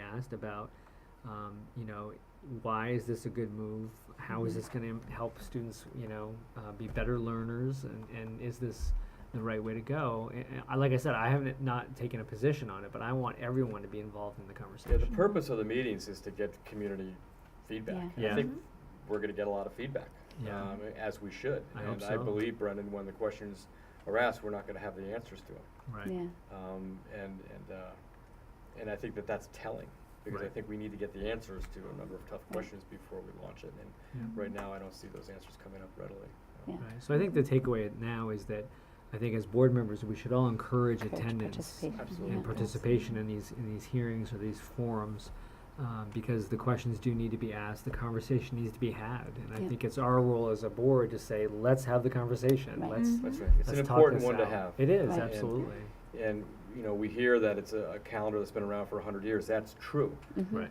past about, um, you know, why is this a good move? How Mm-hmm. is this going to help students, you know, uh, be better learners? And, and is this the right way to go? And, and I, like I said, I haven't not taken a position on it, but I want everyone to be involved in the Yeah, the conversation. purpose of the meetings is to get community feedback. Yeah. Yeah. I think we're gonna get a lot of feedback, Yeah. um, as we should. I hope And I so. believe, Brendan, when the questions are asked, we're not gonna have the answers to them. Right. Yeah, Um, and, and, uh, and I think that that's telling, because I Right. think we need to get the answers to a number of tough questions before we launch it. And Yeah. right now, I don't see those answers coming up readily. yeah. Right. So I think the takeaway now is that I think as board members, we should all encourage Encourage attendance participation, Absolutely. and yeah. participation in these, in these hearings or these forums, um, because the questions do need to be asked, the conversation needs to be had. And I Yeah. think it's our role as a board to say, let's have the conversation, Right. Mm-hmm. let's, Mhm. That's right. It's an let's talk important this one to out. have. It is, Right. And- absolutely, And, you know, we hear that it's a a calendar that's been around for a hundred years. That's true. Mhm. right,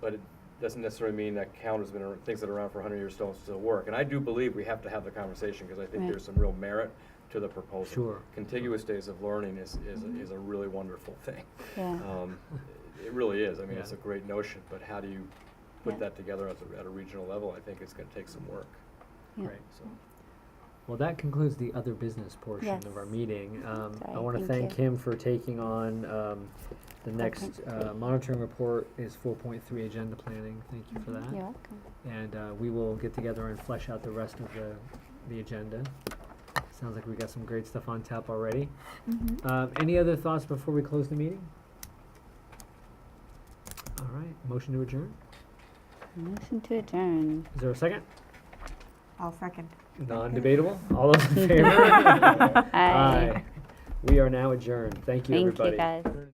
but it doesn't necessarily mean that calendar's been, ar- things that are around for hundred years don't still work. And I do believe we have to have the conversation, because I think Right. there's some real merit to the proposal. Sure. Contiguous days of learning is, is, Mm-hmm. a- is a really wonderful thing. Yeah. Uh, Um, It really is, I mean, it's a Yeah. great notion, but how do you put Yeah. that together at a, at a regional level? I think it's gonna take some work, Yeah. right. so. Well, that concludes the other business portion of our Yes. meeting. Um, Sorry, I want to thank thank him for taking on, um, the next, 4.3. uh, monitoring report is four point three agenda planning. Thank you for that. You're welcome. And uh, we will get together and flesh out the rest of the, the agenda. Sounds like we got some great stuff on tap already. Mm-hmm. Um, any other thoughts before we close the meeting? All right, motion to adjourn. Motion to adjourn. Is there a second? I'll second. Non-debatable. All those in favor? Aye. We are now adjourned. Thank you, Thank you, everybody. guys.